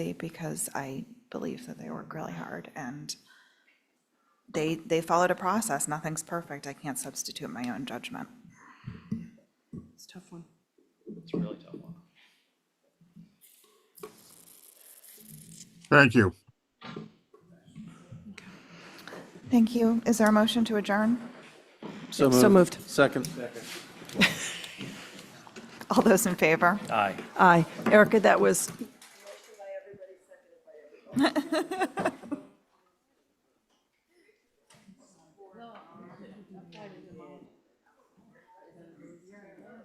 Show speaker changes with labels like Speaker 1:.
Speaker 1: because I believe that they work really hard and they, they followed a process. Nothing's perfect. I can't substitute my own judgment.
Speaker 2: It's a tough one.
Speaker 3: It's a really tough one.
Speaker 4: Thank you.
Speaker 1: Thank you. Is there a motion to adjourn?
Speaker 2: So moved.
Speaker 5: Second.
Speaker 1: All those in favor?
Speaker 3: Aye.
Speaker 2: Aye. Erica, that was